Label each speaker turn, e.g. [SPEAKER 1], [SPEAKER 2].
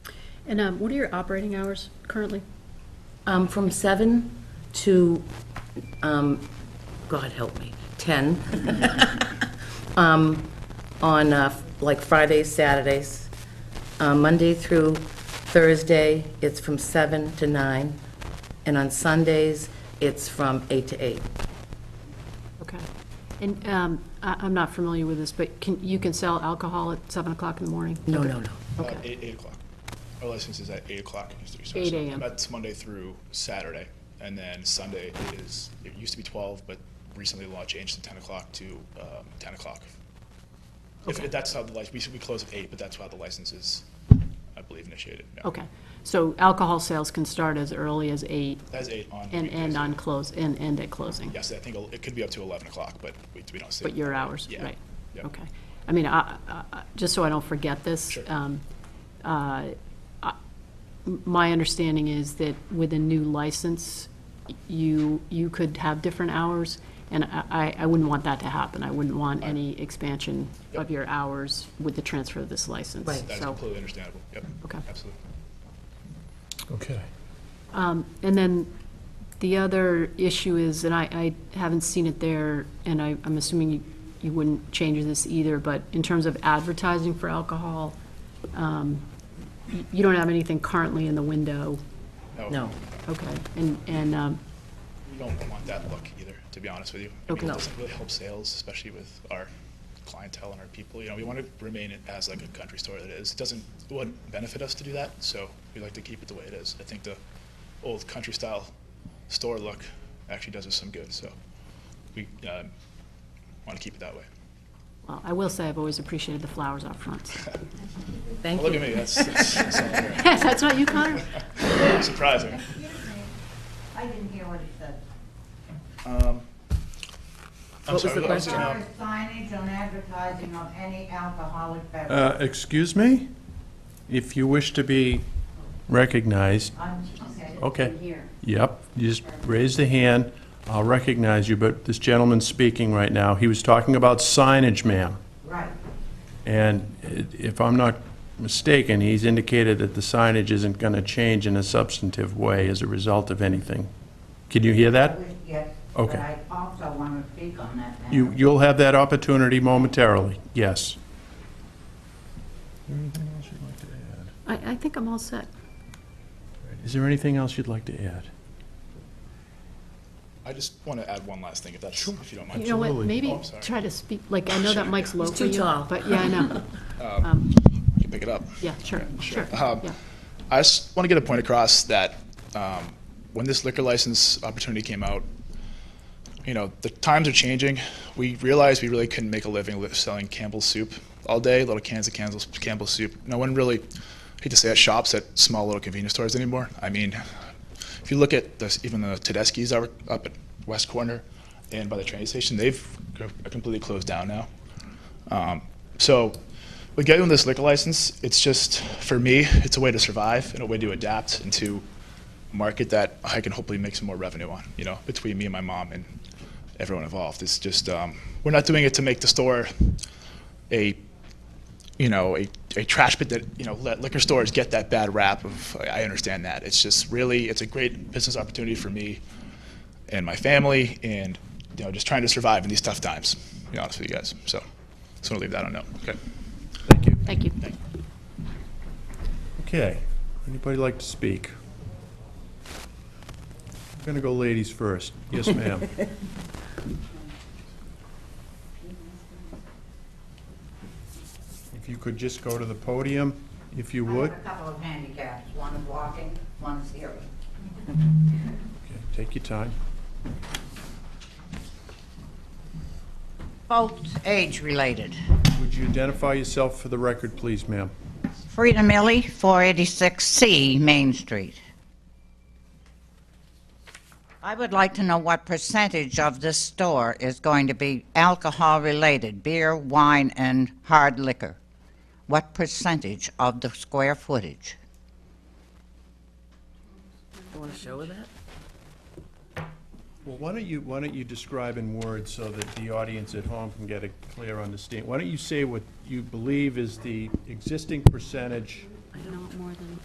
[SPEAKER 1] And um, what are your operating hours currently?
[SPEAKER 2] Um, From 7 to, um, God help me, 10, Um, on, uh, like, Fridays, Saturdays, Uh, Monday through Thursday, it's from 7 to 9, and on Sundays, it's from 8 to 8.
[SPEAKER 1] Okay. And um, I- I'm not familiar with this, but can, you can sell alcohol at 7 o'clock in the morning?
[SPEAKER 2] No, no, no.
[SPEAKER 3] Uh,
[SPEAKER 1] Okay.
[SPEAKER 3] Eight, eight o'clock. Our license is at eight o'clock. It used to be. so-
[SPEAKER 1] 8 a.m..
[SPEAKER 3] That's Monday through Saturday, and then Sunday is, it used to be twelve, but recently the law changed to ten o'clock to, um, ten o'clock. If, if that's how the license, we, should- we close at eight, but that's how the license is, I believe, initiated. yeah.
[SPEAKER 1] Okay. So alcohol sales can start as early as 8
[SPEAKER 3] That's eight on.
[SPEAKER 1] and
[SPEAKER 3] weekdays.
[SPEAKER 1] end on close, and end at closing?
[SPEAKER 3] Yes, I think it'll- it could be up to eleven o'clock, but we, we don't see.
[SPEAKER 1] But your hours,
[SPEAKER 3] Yeah.
[SPEAKER 1] right?
[SPEAKER 3] Yeah.
[SPEAKER 1] Okay. I mean, I- I- I- just so I don't forget this.
[SPEAKER 3] Sure.
[SPEAKER 1] um, uh, I- m- My understanding is that with a new license, y- you, you could have different hours, and I- I, I wouldn't want that to happen. I wouldn't want any expansion of your hours with the transfer of this license.
[SPEAKER 2] Right.
[SPEAKER 3] That is
[SPEAKER 1] So,
[SPEAKER 3] completely understandable. Yep.
[SPEAKER 1] Okay.
[SPEAKER 3] Absolutely.
[SPEAKER 4] Okay.
[SPEAKER 1] And then the other issue is, and I, I haven't seen it there, and I, I'm assuming you, you wouldn't change this either, but in terms of advertising for alcohol, um, y- you don't have anything currently in the window,
[SPEAKER 2] No.
[SPEAKER 1] okay? And, and, um,
[SPEAKER 3] We don't want that look either, to be honest with you. I mean,
[SPEAKER 1] Okay.
[SPEAKER 3] it
[SPEAKER 1] No.
[SPEAKER 3] doesn't really help sales, especially with our clientele and our people. You know, we want to remain it as like a country store that it is. It doesn't, it wouldn't benefit us to do that, so we like to keep it the way it is. I think the old country style store look actually does us some good, so we um, want to keep it that way.
[SPEAKER 1] well, I will say I've always appreciated the flowers out front.
[SPEAKER 2] Thank
[SPEAKER 3] Well, look
[SPEAKER 2] you.
[SPEAKER 3] at me, that's, that's, that's all there.
[SPEAKER 1] That's not you, Connor?
[SPEAKER 3] surprising.
[SPEAKER 5] I didn't hear what it said.
[SPEAKER 3] Um, I'm
[SPEAKER 2] was
[SPEAKER 3] sorry,
[SPEAKER 2] the
[SPEAKER 3] I was-
[SPEAKER 2] question?
[SPEAKER 3] um,
[SPEAKER 5] There is signage on advertising of any alcoholic
[SPEAKER 4] Uh,
[SPEAKER 5] beverage.
[SPEAKER 4] Excuse me? If you wish to be recognized,
[SPEAKER 5] I'm, okay.
[SPEAKER 4] okay.
[SPEAKER 5] Here.
[SPEAKER 4] Yep, you just raise the hand, I'll recognize you, but this gentleman's speaking right now. He was talking about signage, ma'am.
[SPEAKER 5] Right.
[SPEAKER 4] And i- if I'm not mistaken, he's indicated that the signage isn't going to change in a substantive way as a result of anything. Can you hear
[SPEAKER 5] I
[SPEAKER 4] that?
[SPEAKER 5] wish- Yes.
[SPEAKER 4] Okay.
[SPEAKER 5] But I also want to speak on that now.
[SPEAKER 4] You, you'll have that opportunity momentarily, yes. Anything else you'd like to add?
[SPEAKER 1] I, I think I'm all set.
[SPEAKER 4] Is there anything else you'd like to add?
[SPEAKER 3] I just want to add one last thing, if that's, if you don't mind.
[SPEAKER 1] You know what,
[SPEAKER 4] Absolutely.
[SPEAKER 1] maybe
[SPEAKER 3] Oh, I'm sorry.
[SPEAKER 1] try to speak, like, I know that mic's low
[SPEAKER 2] He's
[SPEAKER 1] for
[SPEAKER 2] too
[SPEAKER 1] you,
[SPEAKER 2] tall.
[SPEAKER 1] But, yeah, I know.
[SPEAKER 3] You can pick it up.
[SPEAKER 1] Yeah, sure, sure,
[SPEAKER 3] Um,
[SPEAKER 1] yeah.
[SPEAKER 3] I just want to get a point across that um, when this liquor license opportunity came out, you know, the times are changing. We realized we really couldn't make a living li- selling Campbell's soup all day, little cans of Campbell's, Campbell's soup. No one really, I hate to say it, shops at small little convenience stores anymore. I mean, if you look at this, even the Tedeschi's that were up at West Corner and by the train station, they've co- completely closed down now. Um, so, with getting this liquor license, it's just for me, it's a way to survive and a way to adapt and to market that I can hopefully make some more revenue on. You know, between me and my mom and everyone involved, it's just um, we're not doing it to make the store a you know a, a trash pit that you know let liquor stores get that bad rap of. I I understand that. It's just really it's a great business opportunity for me and my family and you know just trying to survive in these tough times. To be honest with you guys, so just want to leave that on note. Okay.
[SPEAKER 1] Thank you.
[SPEAKER 4] Okay, anybody like to speak? I'm going to go ladies first. Yes, ma'am. If you could just go to the podium, if you
[SPEAKER 5] I
[SPEAKER 4] would.
[SPEAKER 5] have a couple of handicaps. One is walking, one is hearing.
[SPEAKER 4] Okay, Take your time.
[SPEAKER 5] Both age-related.
[SPEAKER 4] Would you identify yourself for the record, please, ma'am?
[SPEAKER 5] Frida Millie, 486C Main Street. I would like to know what percentage of this store is going to be alcohol-related, beer, wine, and hard liquor? What percentage of the square footage?
[SPEAKER 2] You want to show her that?
[SPEAKER 4] Well, why don't you, why don't you describe in words so that the audience at home can get a clear understanding? Why don't you say what you believe is the existing percentage
[SPEAKER 1] I don't want more than.